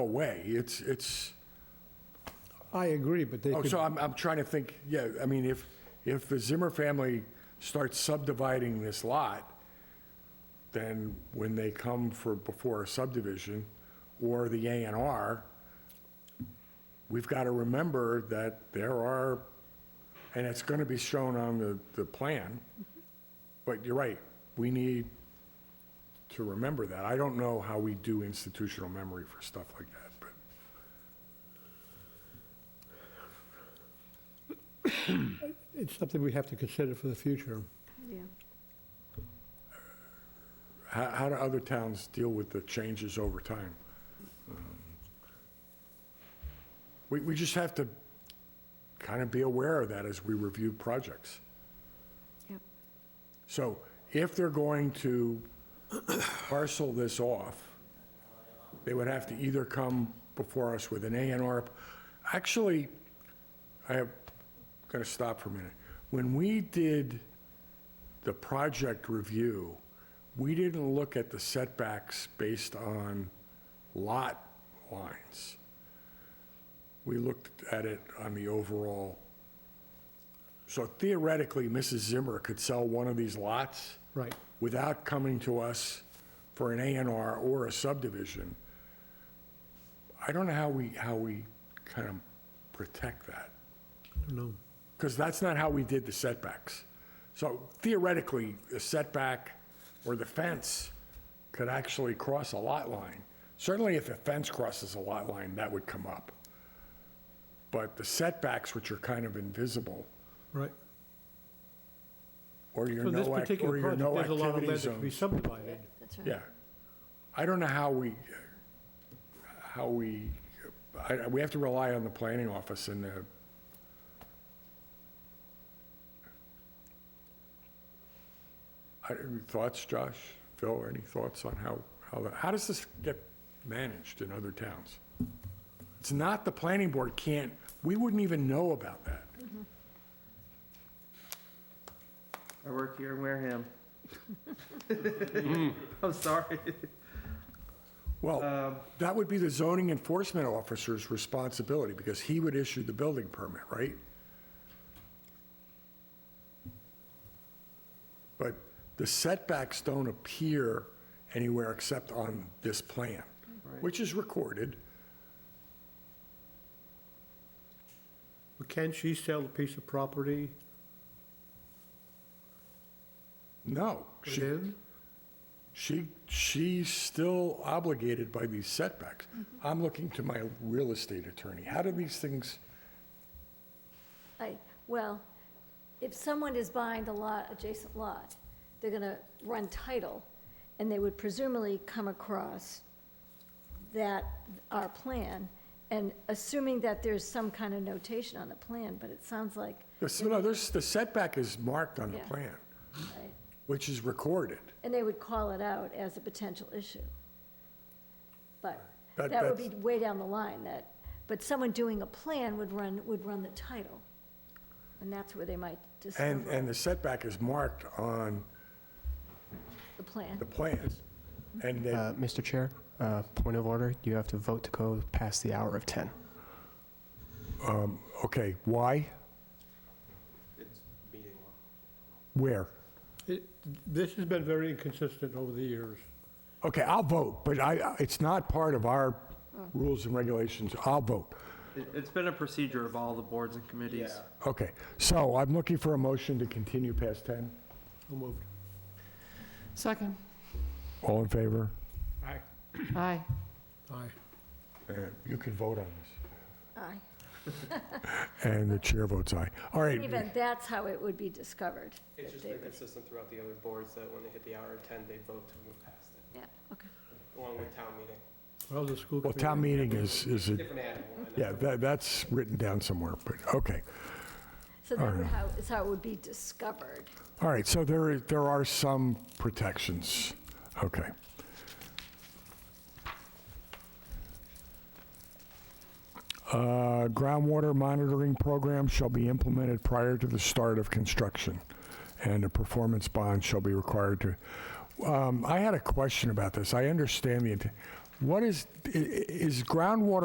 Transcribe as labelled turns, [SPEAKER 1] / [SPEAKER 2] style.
[SPEAKER 1] away. It's, it's,
[SPEAKER 2] I agree, but they
[SPEAKER 1] oh,
[SPEAKER 2] could,
[SPEAKER 1] so I'm, I'm trying to think, yeah, I mean, if, if the Zimmer family starts subdividing this lot, then when they come for, before a subdivision or the A and R, we've got to remember that there are, and it's going to be shown on the, the plan, but you're right, we need to remember that. I don't know how we do institutional memory for stuff like that, but.
[SPEAKER 2] it's something we have to consider for the future.
[SPEAKER 3] Yeah.
[SPEAKER 1] How, how do other towns deal with the changes over time? Um, We, we just have to kind of be aware of that as we review projects.
[SPEAKER 3] Yep.
[SPEAKER 1] So if they're going to parcel this off, they would have to either come before us with an A and R. Actually, I have, gotta stop for a minute. When we did the project review, we didn't look at the setbacks based on lot lines. We looked at it on the overall. So theoretically, Mrs. Zimmer could sell one of these lots
[SPEAKER 2] Right.
[SPEAKER 1] without coming to us for an A and R or a subdivision. I don't know how we, how we kind of protect that.
[SPEAKER 2] No.
[SPEAKER 1] Because that's not how we did the setbacks. So theoretically, the setback or the fence could actually cross a lot line. Certainly if a fence crosses a lot line, that would come up. But the setbacks, which are kind of invisible,
[SPEAKER 2] Right.
[SPEAKER 1] or your
[SPEAKER 2] For this
[SPEAKER 1] no, act- or
[SPEAKER 2] particular
[SPEAKER 1] your
[SPEAKER 2] project,
[SPEAKER 1] no
[SPEAKER 2] there's a lot of
[SPEAKER 1] activity
[SPEAKER 2] land that could be
[SPEAKER 1] zones.
[SPEAKER 2] subdivided.
[SPEAKER 3] That's right.
[SPEAKER 1] Yeah. I don't know how we, how we, I, we have to rely on the planning office and the, I, thoughts, Josh, Phil, any thoughts on how, how, the- how does this get managed in other towns? It's not the planning board can't, we wouldn't even know about that.
[SPEAKER 4] I work here in Wareham. I'm sorry.
[SPEAKER 1] Well,
[SPEAKER 4] Um,
[SPEAKER 1] that would be the zoning enforcement officer's responsibility, because he would issue the building permit, right? But the setbacks don't appear anywhere except on this plan,
[SPEAKER 4] Right.
[SPEAKER 1] which is recorded.
[SPEAKER 2] But Can she sell a piece of property
[SPEAKER 1] No, she,
[SPEAKER 2] within?
[SPEAKER 1] she, she's still obligated by these setbacks. I'm looking to my real estate attorney. How do these things,
[SPEAKER 3] I, well, if someone is buying the lot, adjacent lot, they're gonna run title, and they would presumably come across that, our plan, and assuming that there's some kind of notation on the plan, but it sounds like,
[SPEAKER 1] There's- no, there's, the setback is marked on the
[SPEAKER 3] Yeah.
[SPEAKER 1] plan,
[SPEAKER 3] right?
[SPEAKER 1] which is recorded.
[SPEAKER 3] and they would call it out as a potential issue. But
[SPEAKER 1] That-
[SPEAKER 3] that would be
[SPEAKER 1] that's-
[SPEAKER 3] way down the line, that, but someone doing a plan would run, would run the title, and that's where they might
[SPEAKER 1] And,
[SPEAKER 3] discover
[SPEAKER 1] and the setback is marked on
[SPEAKER 3] the plan.
[SPEAKER 1] the plan. And then,
[SPEAKER 5] Uh, Mr. Chair, uh, point of order, you have to vote to go past the hour of 10.
[SPEAKER 1] okay, why? Where?
[SPEAKER 2] It- This has been very inconsistent over the years.
[SPEAKER 1] Okay, I'll vote, but I, it's not part of our rules and regulations. I'll vote.
[SPEAKER 4] It- It's been a procedure of all the boards and committees.
[SPEAKER 1] Okay, so I'm looking for a motion to continue past 10.
[SPEAKER 2] I'll move.
[SPEAKER 6] Second.
[SPEAKER 1] All in favor?
[SPEAKER 6] Aye.
[SPEAKER 2] Aye.
[SPEAKER 1] And Uh, You can vote on this.
[SPEAKER 3] Aye.
[SPEAKER 1] And the chair votes aye. All right.
[SPEAKER 3] Even that's how it would be discovered.
[SPEAKER 7] It's
[SPEAKER 3] that
[SPEAKER 7] just
[SPEAKER 3] they
[SPEAKER 7] been
[SPEAKER 3] would-
[SPEAKER 7] consistent throughout the other boards that when they hit the hour of ten, they vote to move past it,
[SPEAKER 3] Yeah, okay.
[SPEAKER 7] along with town meeting.
[SPEAKER 2] Well, the school
[SPEAKER 1] Well,
[SPEAKER 2] committee.
[SPEAKER 1] town meeting is, is, a-
[SPEAKER 7] Different animal. I know.
[SPEAKER 1] yeah, that, that's written down somewhere, but, okay.
[SPEAKER 3] So that's how, is how it would be discovered.
[SPEAKER 1] All right, so there, i- there are some protections. Okay. Uh, Groundwater monitoring program shall be implemented prior to the start of construction, and a performance bond shall be required to, um, I had a question about this. I understand the, int- What is, i- i- is groundwater